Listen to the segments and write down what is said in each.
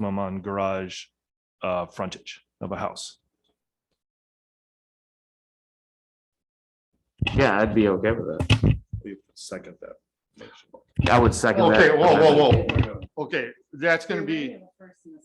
maximum on garage uh, frontage of a house. Yeah, I'd be okay with that. We Second that. I would second that. Okay, whoa, whoa, whoa. Okay, that's gonna be,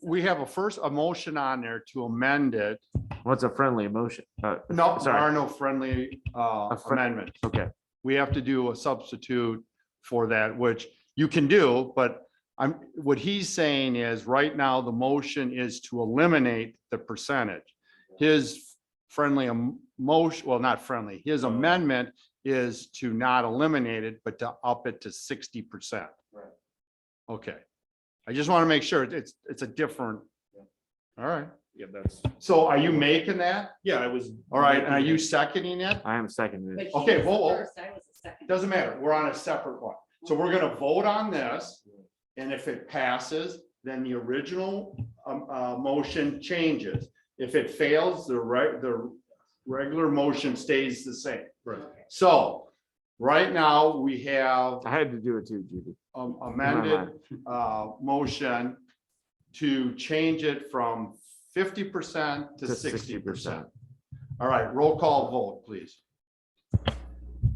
we have a first, a motion on there to amend it. What's a friendly emotion? Uh, No, there Sorry. are no friendly uh, A fr- amendments. okay, We have to do a substitute for that, which you can do, but I'm, what he's saying is, right now, the motion is to eliminate the percentage. His friendly am- motion, well, not friendly, his amendment is to not eliminate it, but to up it to sixty percent. Right. Okay, I just want to make sure it's, it's a different. All right, Yeah, that's, so are you making that? yeah, I was. All right, and are you seconding it? I am seconding it. Okay, whoa, whoa. second. Doesn't matter, we're on a separate one. So we're gonna vote on this, and if it passes, then the original um uh motion changes. If it fails, the right, the regular motion stays the same. Right. So, right now, we have I had to do it too, Judy. um, amended uh motion to change it from fifty percent to To sixty percent. 60%. All right, roll call vote, please.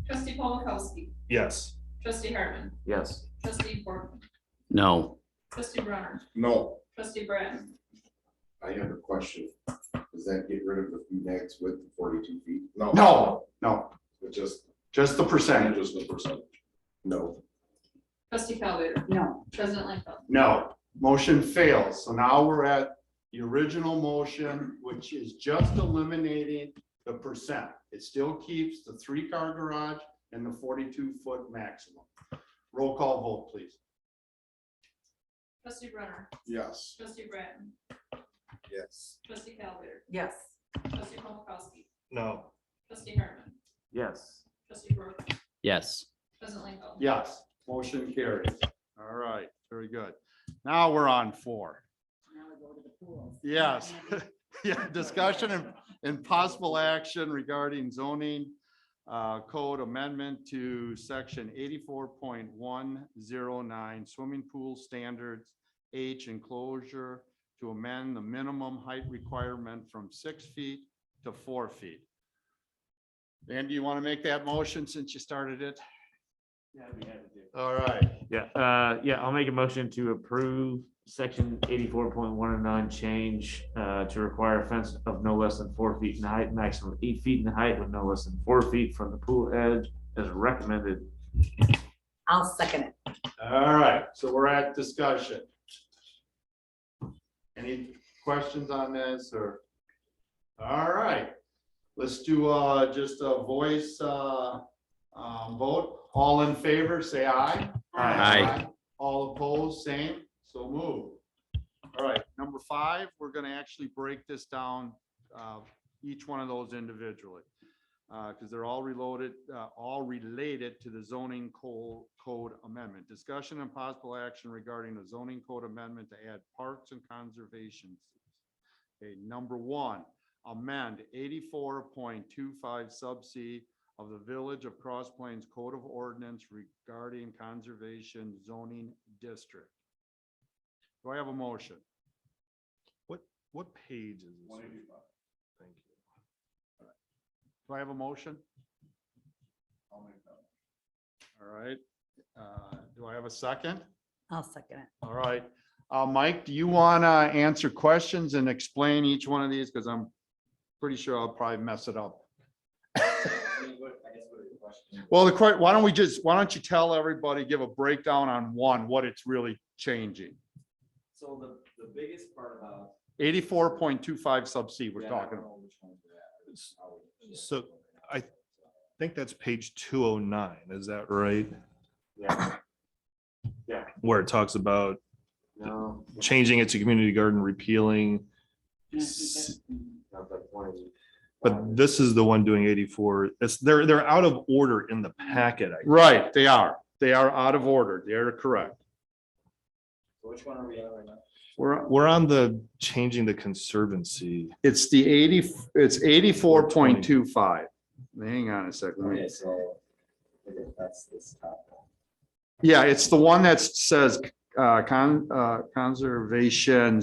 Trustee Paul Mikowski, Yes. trustee Hartman, Yes, trustee Portman, No, trustee Brunner, No, trustee Bratton, I have a question. Does that get rid of the few decks with the forty-two feet? No. No, no, It just, just the and percentage. just the percentage. No. trustee Calvater. No. President Lightfoot. No, motion fails. So now we're at the original motion, which is just eliminating the percent. It still keeps the three-car garage and the forty-two foot maximum. Roll call vote, please. Trustee Brunner, Yes. trustee Bratton, Yes. trustee Calvater, Yes, trustee Paul Mikowski, No. trustee Hartman, yes. trustee Portman, yes. president Lightfoot. Yes, motion carries. All right, very good. Now we're on four. Yes. Yeah, discussion and, and possible action regarding zoning uh, code amendment to section eighty-four point one zero nine swimming pool standards H enclosure to amend the minimum height requirement from six feet to four feet. Andy, you want to make that motion since you started it? All right. Yeah, uh, yeah, I'll make a motion to approve section eighty-four point one and nine change, uh, to require a fence of no less than four feet in height, maximum eight feet in height with no less than four feet from the pool edge as recommended. I'll second it. All right, so we're at discussion. Any questions on this or? All right, let's do uh just a voice uh um vote. All in favor, say aye. Aye. All opposed, same, so move. All right, number five, we're gonna actually break this down uh each one of those individually. Uh, because they're all reloaded, uh, all related to the zoning co- code amendment. Discussion and possible action regarding the zoning code amendment to add parks and conservation. Okay, number one, amend eighty-four point two five sub C of the Village of Cross Plains Code of Ordinance regarding conservation zoning district. Do I have a motion? What, what page is this? Thank you. Do I have a motion? All right, uh, do I have a second? I'll second it. All right, uh, Mike, do you want to answer questions and explain each one of these? Because I'm pretty sure I'll probably mess it up. Well, the, que- why don't we just, why don't you tell everybody, give a breakdown on one, what it's really changing? So the, the biggest part about. Eighty-four point two five sub C we're Yeah, I don't talking about. know which ones were at, S- how we- so I- I think that's page two oh nine, is that right? Yeah. Yeah. Where it talks about No, changing it to community garden, repealing. s- not that point. But this is the one doing eighty-four. It's, they're, they're out of order in the packet. I- Right, they are. They are out of order. They're correct. So Which one are we on right now? We're, we're on the changing the conservancy. It's the eighty, it's eighty-four point two five. Hang on a second. Oh, let me- Okay, so. I think That's this top one. Yeah, it's the one that says, uh, con, uh, conservation